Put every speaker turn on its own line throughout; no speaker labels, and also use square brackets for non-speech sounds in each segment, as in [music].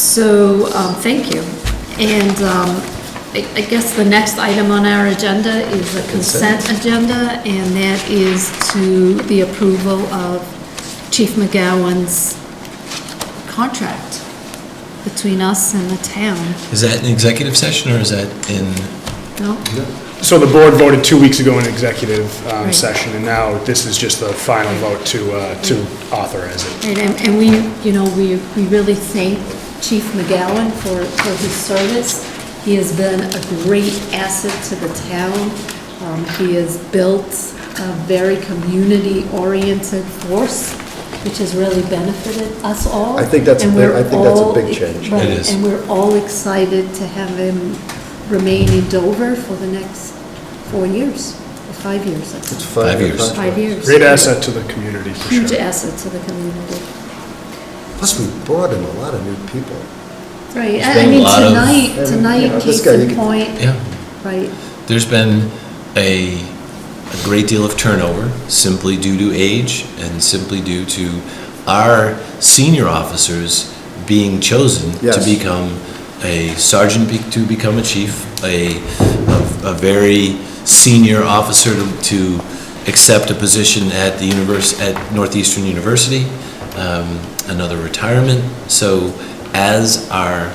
So, um, thank you. And um, I I guess the next item on our agenda is a consent agenda, and that is to the approval of Chief McGowan's contract between us and the town.
Is that an executive session or is that in,
No?
So the board voted two weeks ago in executive um,
Right.
session, and now this is just the final vote to, uh, to authorize it.
Right, and, and we, you know, we, we really thank Chief McGowan for, for his service. He has been a great asset to the town. Um, he has built a very community-oriented force, which has really benefited us all.
I think that's a
And
big- I
we're
think that's a
all-
big change.
right,
It is.
And we're all excited to have him remain in Dover for the next four years, or five years, I
It's
think.
five
Five
years.
years.
Five years.
Great asset to the community, for
Huge
sure.
asset to the community.
Plus, we brought in a lot of new people.
Right,
There's
I I
been a
mean,
lot of-
tonight,
And, you know,
tonight,
this
case
guy, you
in
could-
point,
yeah,
right,
there's been a, a great deal of turnover simply due to age and simply due to our senior officers being chosen to
Yes.
become a sergeant, be- to become a chief, a, a a very senior officer to, to accept a position at the univers, at Northeastern University, um, another retirement. So as our,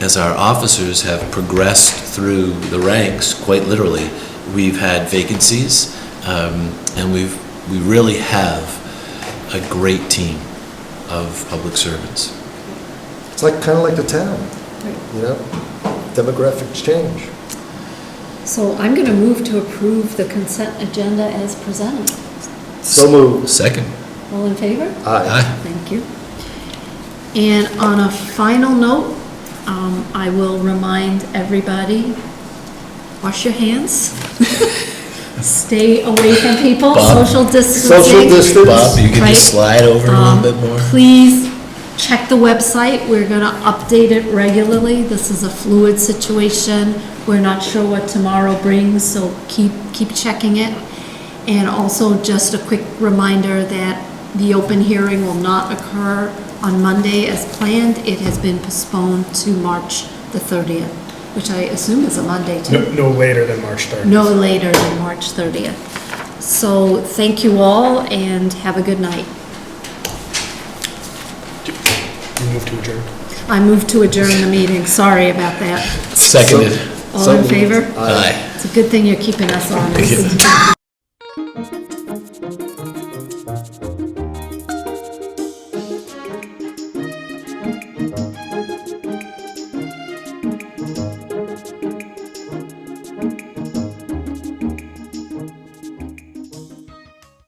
as our officers have progressed through the ranks, quite literally, we've had vacancies, um, and we've, we really have a great team of public servants.
It's like, kind of like the town, you know? Demographics change.
so I'm gonna move to approve the consent agenda as presented.
So moved.
Second.
All in favor?
Aye.
Thank you. And on a final note, um, I will remind everybody, wash your hands. [laughs] Stay away from people,
Bob.
social distancing.
Social distance.
Bob, you can
Right.
just slide over a
Um,
little bit more.
Please check the website. We're going to update it regularly. This is a fluid situation. We're not sure what tomorrow brings, so keep, keep checking it. And also, just a quick reminder that the open hearing will not occur on Monday as planned. It has been postponed to March the 30th, which I assume is a Monday, too
No- No later than March 3rd.
no later than March 30th. So thank you all and have a good night.
You move to adjourn.
I move to adjourn the meeting, sorry about that.
Seconded.
All in
So moved.
favor?
Aye.
It's a good thing you're keeping us honest.